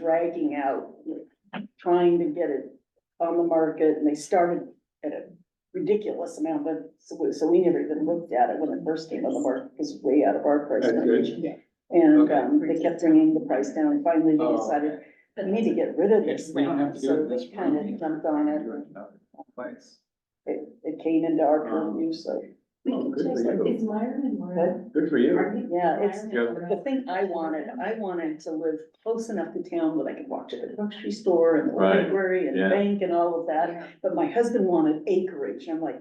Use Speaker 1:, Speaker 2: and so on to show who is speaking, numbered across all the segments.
Speaker 1: dragging out, trying to get it on the market, and they started at a ridiculous amount, but so, we- so we never even looked at it when it first came on the market, because it's way out of our price
Speaker 2: That's
Speaker 1: range.
Speaker 2: good.
Speaker 1: And,
Speaker 2: Okay.
Speaker 1: um, they kept bringing the price down, and finally we
Speaker 2: Oh.
Speaker 1: decided, we need to get rid of this
Speaker 2: Yes, we don't have
Speaker 1: now,
Speaker 2: to do it
Speaker 1: so
Speaker 2: in this
Speaker 1: we kind
Speaker 2: room.
Speaker 1: of jumped on it,
Speaker 2: You're in another Place.
Speaker 1: it, it came into our
Speaker 2: Um,
Speaker 1: purview, so,
Speaker 2: Oh, good for
Speaker 3: It's
Speaker 2: you.
Speaker 3: Myron and Mara.
Speaker 2: Good for you.
Speaker 1: yeah, it's,
Speaker 2: Yeah.
Speaker 1: The thing I wanted, I wanted to live close enough to town that I could walk to the grocery store and the
Speaker 2: Right,
Speaker 1: library and the
Speaker 2: yeah.
Speaker 1: bank and all of that.
Speaker 3: Yeah.
Speaker 1: But my husband wanted acreage. and I'm like,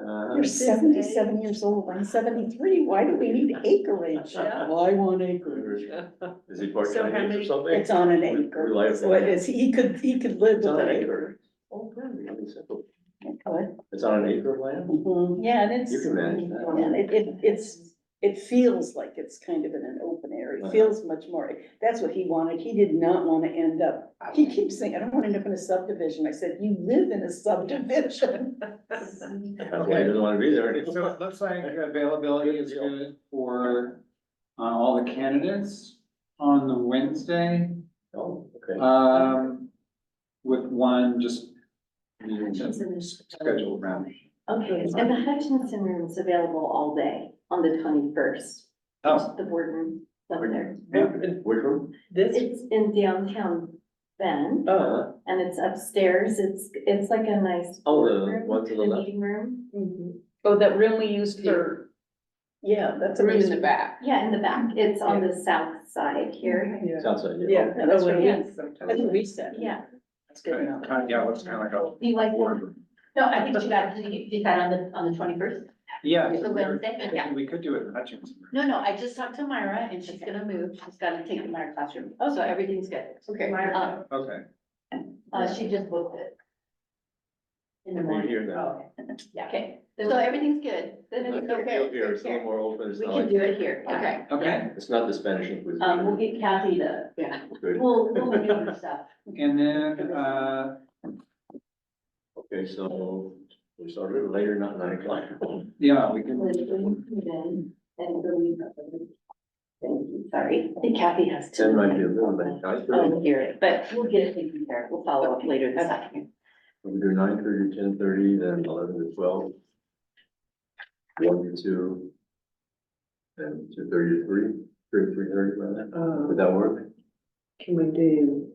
Speaker 2: Uh,
Speaker 1: you're seventy-seven years old, I'm seventy-three, why do we need acreage?
Speaker 2: Yeah.
Speaker 1: Well, I want acreage.
Speaker 2: Is he part
Speaker 4: So how
Speaker 2: Chinese or
Speaker 4: many-
Speaker 2: something?
Speaker 1: It's on an
Speaker 2: We- we
Speaker 1: acre,
Speaker 2: like
Speaker 1: so it
Speaker 2: that.
Speaker 1: is, he could, he could live
Speaker 2: It's
Speaker 1: with
Speaker 2: on an
Speaker 1: an acre.
Speaker 2: acre. Oh, really? Really simple.
Speaker 1: What?
Speaker 2: It's on an acre of land?
Speaker 1: Mhm. Yeah, and it's,
Speaker 2: You can manage that.
Speaker 1: and it, it, it's, it feels like it's kind of in an open area,
Speaker 2: Uh-huh.
Speaker 1: it feels much more, that's what he wanted, he did not wanna end up He keeps saying, I don't want to end up in a subdivision. I said, you live in a subdivision.
Speaker 2: Apparently he doesn't want to be there
Speaker 4: So
Speaker 2: anymore.
Speaker 4: it looks like availability is good for uh, all the candidates on the Wednesday.
Speaker 2: Oh, okay.
Speaker 4: Um, with one just scheduled round.
Speaker 3: Okay, and the Hutchinson room is available all day on the twenty-first.
Speaker 4: Oh,
Speaker 3: The boardroom up there.
Speaker 2: Which room?
Speaker 5: This,
Speaker 3: It's in downtown Bend
Speaker 2: Uh,
Speaker 3: and it's upstairs. It's, it's like a nice.
Speaker 2: Oh, the
Speaker 3: boardroom,
Speaker 2: one to the
Speaker 3: a
Speaker 2: left.
Speaker 3: Meeting room.
Speaker 5: oh, that room we used for,
Speaker 1: Mm-hmm. Yeah, that's.
Speaker 5: the room in the
Speaker 1: amazing.
Speaker 5: back.
Speaker 3: Yeah, in the back. It's on the south side here.
Speaker 1: Yeah.
Speaker 2: sounds like, yeah.
Speaker 1: Yeah, that's what it
Speaker 3: Yeah.
Speaker 1: is. That's what we said.
Speaker 3: Yeah.
Speaker 1: It's good enough.
Speaker 4: kind of, yeah, it looks kind of like a
Speaker 3: Do you like that?
Speaker 4: boardroom.
Speaker 6: No, I think you got, you did that on the, on the twenty-first.
Speaker 4: Yeah.
Speaker 6: The Wednesday, but yeah.
Speaker 4: We could do it in Hutchinson.
Speaker 6: No, no, I just talked to Myra and she's gonna move. She's gonna take the Myra classroom. Oh, so everything's good.
Speaker 5: Okay.
Speaker 6: Uh,
Speaker 4: Okay.
Speaker 6: uh, she just booked it. In the
Speaker 2: You're
Speaker 6: morning.
Speaker 2: here now.
Speaker 6: Oh, okay. Yeah, okay. So everything's good. Then
Speaker 2: Like,
Speaker 6: it's
Speaker 2: Here,
Speaker 6: okay.
Speaker 2: here, it's a little more open, it's
Speaker 6: We
Speaker 2: not
Speaker 6: can
Speaker 2: like,
Speaker 6: do it here. yeah.
Speaker 5: Okay.
Speaker 4: Okay,
Speaker 2: it's not the Spanish Inquisition.
Speaker 6: Um, we'll get Kathy to, yeah,
Speaker 2: Good,
Speaker 6: we'll, we'll maneuver stuff.
Speaker 4: and then, uh,
Speaker 2: okay, so we started later, not nine o'clock.
Speaker 4: yeah, we can.
Speaker 6: When you move in and the leave. Thank you, sorry. I think Kathy has to.
Speaker 2: Ten might be a little late, nine thirty,
Speaker 6: Oh, here, but we'll get it taken care of. We'll follow up later this afternoon.
Speaker 2: we do nine thirty, ten thirty, then eleven to twelve. One to two. And two thirty to three, three to three thirty, right? Would that work?
Speaker 5: Can we do?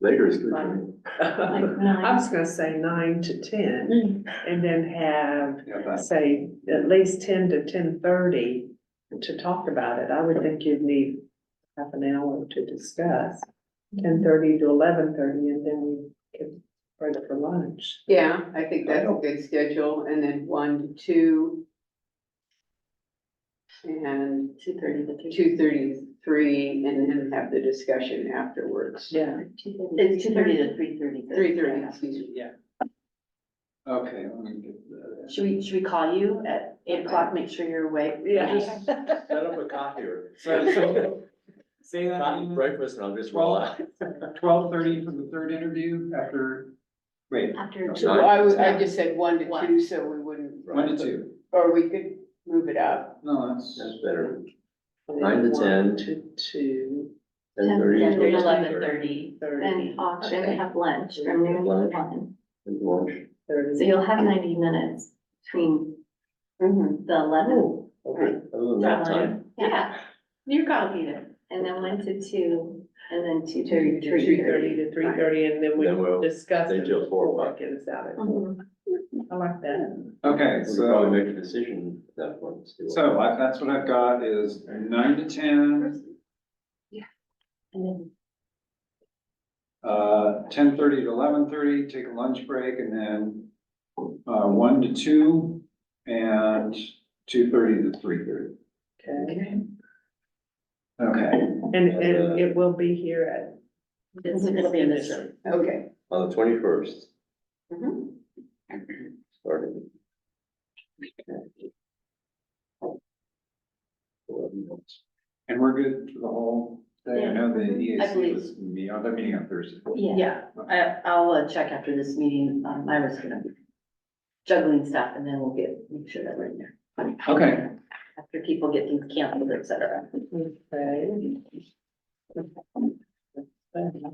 Speaker 2: Later is good. for me.
Speaker 5: I was gonna say nine to ten
Speaker 1: Mm.
Speaker 5: and then have,
Speaker 4: Yeah, that's-
Speaker 5: say, at least ten to ten thirty to talk about it. I would think you'd need half an hour to discuss. Ten thirty to eleven thirty and then we could break for lunch.
Speaker 7: Yeah, I think that's a good schedule, and then one to two. And
Speaker 6: Two thirty to three.
Speaker 7: two thirty, three, and then have the discussion afterwards.
Speaker 5: Yeah.
Speaker 6: It's two thirty to three thirty.
Speaker 7: Three thirty, excuse me.
Speaker 4: Yeah. Okay, let me get the.
Speaker 6: Should we, should we call you at eight o'clock, make sure you're awake?
Speaker 5: Yeah.
Speaker 2: Set up a coffee or.
Speaker 4: So- so- Say
Speaker 2: Coffee,
Speaker 4: that,
Speaker 2: breakfast, and I'll just roll out.
Speaker 4: twelve thirty for the third interview after, wait,
Speaker 6: After.
Speaker 7: So I was, I just said one to two, so we wouldn't,
Speaker 4: one to two,
Speaker 7: or we could move it up.
Speaker 4: no, that's.
Speaker 2: That's better, Nine to 10.
Speaker 5: To two
Speaker 2: ten thirty.
Speaker 6: Ten to eleven thirty.
Speaker 5: thirty.
Speaker 3: Then off, then we have lunch from noon to
Speaker 2: Lunch.
Speaker 3: one.
Speaker 2: Lunch.
Speaker 3: So you'll have ninety minutes between
Speaker 6: Mm-hmm.
Speaker 3: the eleven,
Speaker 2: Oh, okay, other than that time,
Speaker 3: yeah,
Speaker 6: You're gonna be there.
Speaker 3: and then one to two, and then two to
Speaker 5: Three
Speaker 3: three
Speaker 5: thirty
Speaker 3: thirty.
Speaker 5: to three thirty and then
Speaker 2: Then we'll-
Speaker 5: we discuss.
Speaker 2: they
Speaker 5: it
Speaker 2: do a four
Speaker 5: before it
Speaker 2: o'clock.
Speaker 5: Gets out of,
Speaker 3: Mhm.
Speaker 5: I like that.
Speaker 4: Okay,
Speaker 2: we could probably
Speaker 4: so,
Speaker 2: make a decision at that point. see what-
Speaker 4: so I- that's what I've got is nine to ten, uh, ten thirty to eleven thirty, take a lunch break, and then uh, one to two, and two thirty to three thirty.
Speaker 5: Okay.
Speaker 4: Okay,
Speaker 5: And,
Speaker 2: uh,
Speaker 5: and it will be here at
Speaker 6: It's gonna be in this room.
Speaker 7: Okay,
Speaker 2: On the twenty-first.
Speaker 3: Mm-hmm.
Speaker 6: Mhm.
Speaker 2: Starting. Eleven months.
Speaker 4: and we're good for the whole day, I know the EAC
Speaker 6: believe-
Speaker 4: was, me- oh, they're meeting on Thursday.
Speaker 3: Yeah,
Speaker 6: Yeah, I, I'll uh, check after this meeting. Um, Myra's gonna be juggling stuff and then we'll get, make sure that we're in there.
Speaker 4: Okay,
Speaker 6: After people get things canceled, et cetera.
Speaker 5: Okay.